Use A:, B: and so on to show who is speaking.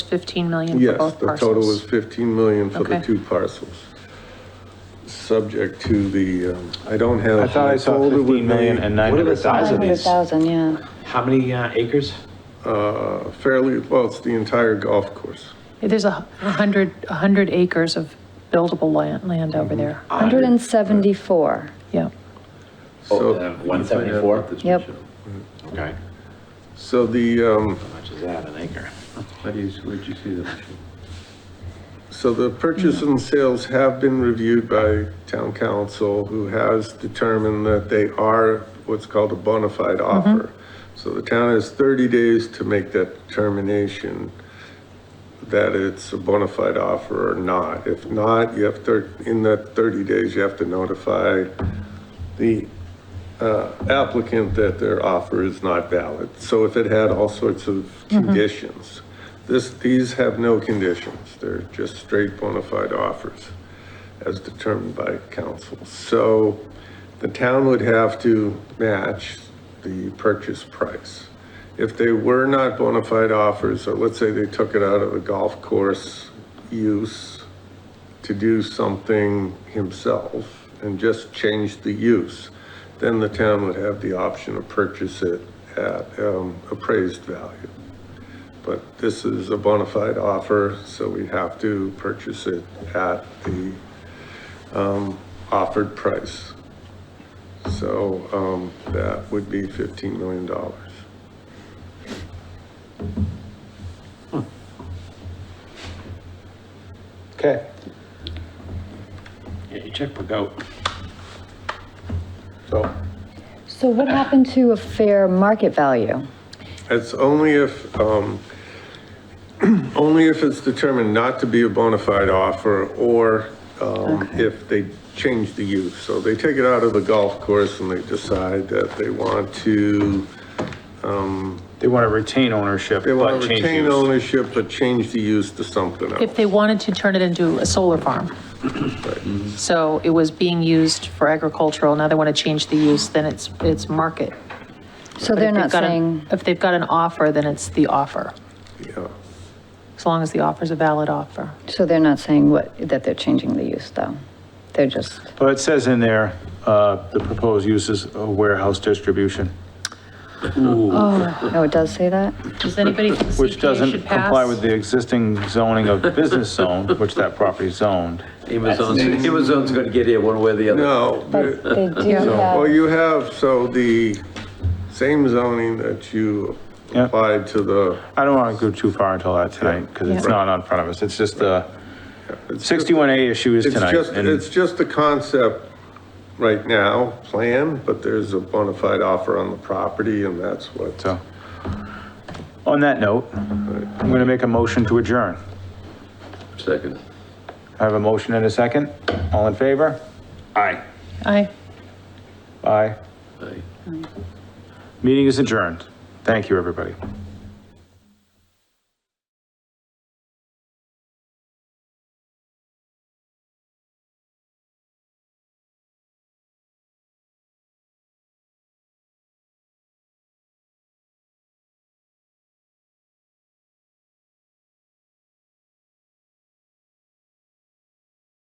A: 15 million for
B: Yes,
A: both
B: the total was
A: parcels?
B: 15 million for the
A: Okay.
B: two parcels. Subject to the, um, I don't have.
C: I thought I saw
B: folder with
C: 15 million
B: me,
C: and
D: What are the
C: 900,000.
D: size of these?
E: 900,000, yeah.
D: How many uh, acres?
B: uh, Fairly, well, it's the entire golf course.
A: There's a 100, 100 acres of buildable land, land
B: Mm-hmm.
A: over there.
E: 174.
A: Yeah.
D: Oh,
B: So-
D: uh, 174?
E: Yep.
F: Mm-hmm.
D: Okay.
B: So the, um,
D: How much is that, an acre?
F: How do you, where'd you see that?
B: So the purchase and sales have been reviewed by town council, who has determined that they are what's called a bona fide offer. So the town has 30 days to make that determination that it's a bona fide offer or not. If not, you have, thir- in that 30 days, you have to notify the uh, applicant that their offer is not valid. So if it had all sorts of conditions. This, these have no conditions. They're just straight bona fide offers as determined by council. So the town would have to match the purchase price. If they were not bona fide offers, or let's say they took it out of the golf course use to do something himself and just change the use, then the town would have the option to purchase it at um, appraised value. But this is a bona fide offer, so we have to purchase it at the um, offered price. So um, that would be $15 million.
C: Okay.
D: Yeah, your checkbook out.
C: So
E: So what happened to a fair market value?
B: It's only if, um, only if it's determined not to be a bona fide offer or, um, if they change the use. So they take it out of the golf course and they decide that they want to,
C: they want to retain ownership,
B: they want
C: but
B: to
C: change
B: retain
C: use.
B: ownership, but change the use to something
A: If
B: else.
A: they wanted to turn it into a solar farm.
B: mm-hmm.
A: So it was being used for agricultural, now they want to change the use, then it's, it's market.
E: So
A: But
E: they're
A: if they've
E: not
A: got an-
E: saying,
A: If they've got an offer, then it's the offer,
B: Yeah.
A: as long as the offer's a valid offer.
E: so they're not saying what, that they're changing the use, though? They're just,
C: But it says in there, uh, the proposed use is a warehouse distribution,
E: oh, it does say that?
A: Does anybody think
C: which
A: CPA
C: doesn't
A: should
C: comply with
A: pass?
C: the existing zoning of business zone, which that property is zoned.
F: Amazon's, Amazon's gonna get here one way or the other.
B: No.
E: But uh, they do
B: So, Well,
E: have,
B: you have, so the same zoning that you
C: Yeah.
B: applied to the.
C: I don't want to go too far until that tonight, because it's
A: Yeah.
C: not on front of us. It's just the
B: it's just-
C: 61A issue is
B: It's
C: tonight.
B: just,
C: and-
B: it's just a concept right now, plan, but there's a bona fide offer on the property and that's what. uh,
C: So, on that note, I'm going to make a motion to adjourn.
F: Second.
C: I have a motion and a second. All in favor? Aye.
A: Aye.
C: Aye.
F: Aye.
C: Meeting is adjourned. Thank you, everybody.